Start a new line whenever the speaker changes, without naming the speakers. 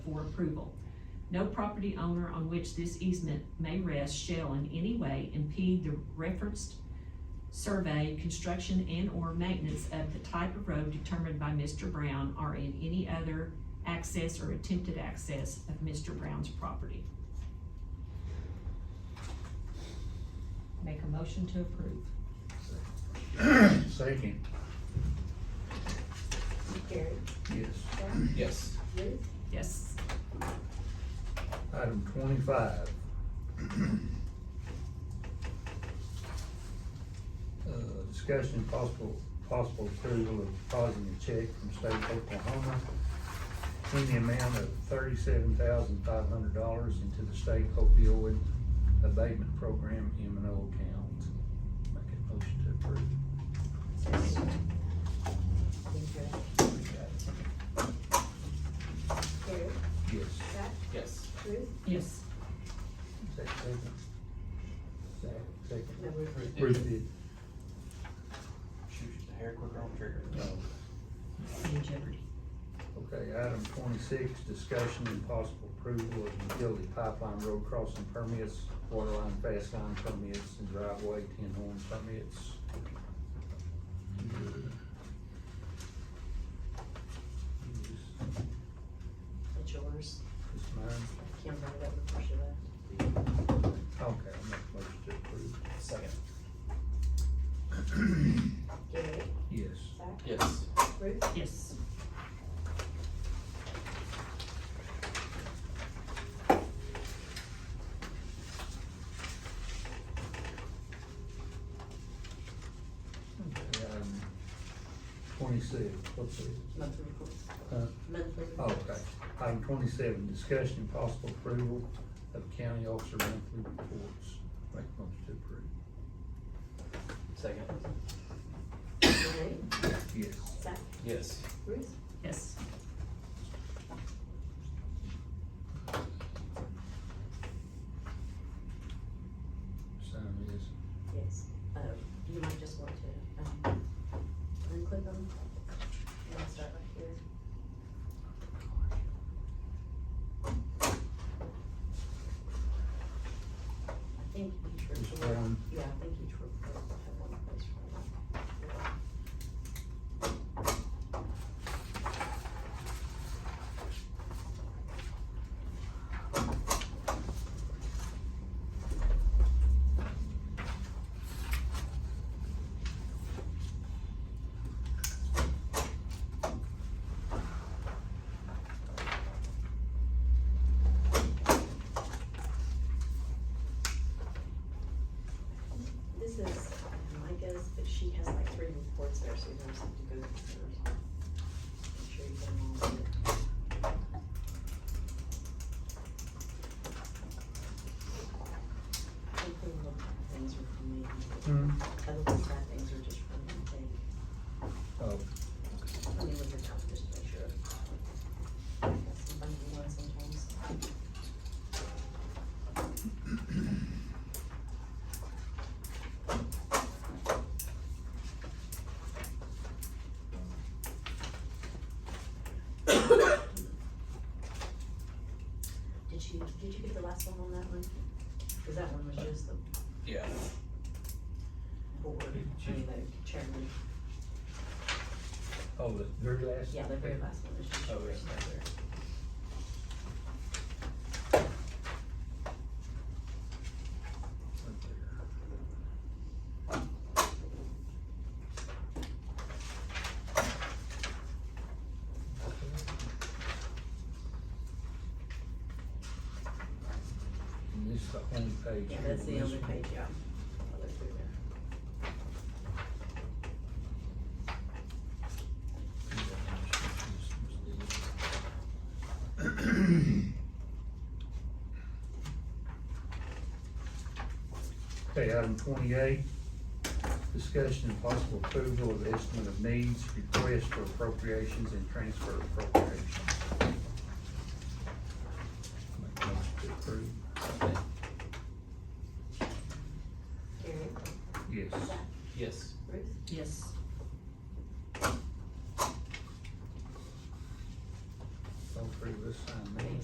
for approval. No property owner on which this easement may rest shall in any way impede the referenced survey, construction, and/or maintenance of the type of road determined by Mr. Brown or in any other access or attempted access of Mr. Brown's property. Make a motion to approve.
Second,
Gary,
yes.
John,
Yes.
Ruth,
Yes.
Item twenty-five. Uh, discussion and possible, possible approval of depositing a check from state of Oklahoma in the amount of thirty-seven thousand five hundred dollars into the state opioid abatement program M and O account. Make a motion to approve.
Gary,
Yes.
Zach,
Yes.
Ruth,
Yes.
Is that Second. Is that
no,
Second.
Ruth.
Ruth did.
Shoot the hair quicker on the trigger.
No.
In jeopardy.
uh, Okay, item twenty-six, discussion and possible approval of utility pipeline road crossing permits, water line fast line permits, and driveway ten horn permits. Is
That's yours.
this mine?
I can't remember that before she left.
Okay, I'll make a motion to approve.
Second.
Gary,
Yes.
Zach,
Yes.
Ruth,
Yes.
Okay, Item twenty-six, what's it?
monthly reports.
Huh?
Monthly. reports.
Oh, Okay, item twenty-seven, discussion and possible approval of county officer monthly reports. Make a motion to approve.
Second.
Gary,
Yes.
Zach,
Yes.
Ruth,
Yes.
Sign this.
yes. Um, you might just want to, um, unclick them. And I'll start right here. I think each
Just
report,
one.
yeah, I think each report will have one place for that. This is Micah's, but she has like three reports there, so you don't have to go through hers. Make sure you get them all. Hopefully, the things are from me. Other than that, things are just from me. They-
Oh,
I mean, with your top, just make sure. Sometimes you want sometimes. Did you, did you get the last one on that one? Cause that one was just the
Yeah.
board, I mean, the chairman.
oh, the very last?
Yeah, the very last one is just
Oh,
yours
yeah.
right there.
Right there. And this is the only page.
Yeah, that's the
This
only
one.
page, yeah. I'll look through there.
Okay, item twenty-eight, discussion and possible approval of estimate of needs, request for appropriations and transfer appropriations. Make a motion to approve.
Second.
Gary,
Yes.
Zach,
Yes.
Ruth,
Yes.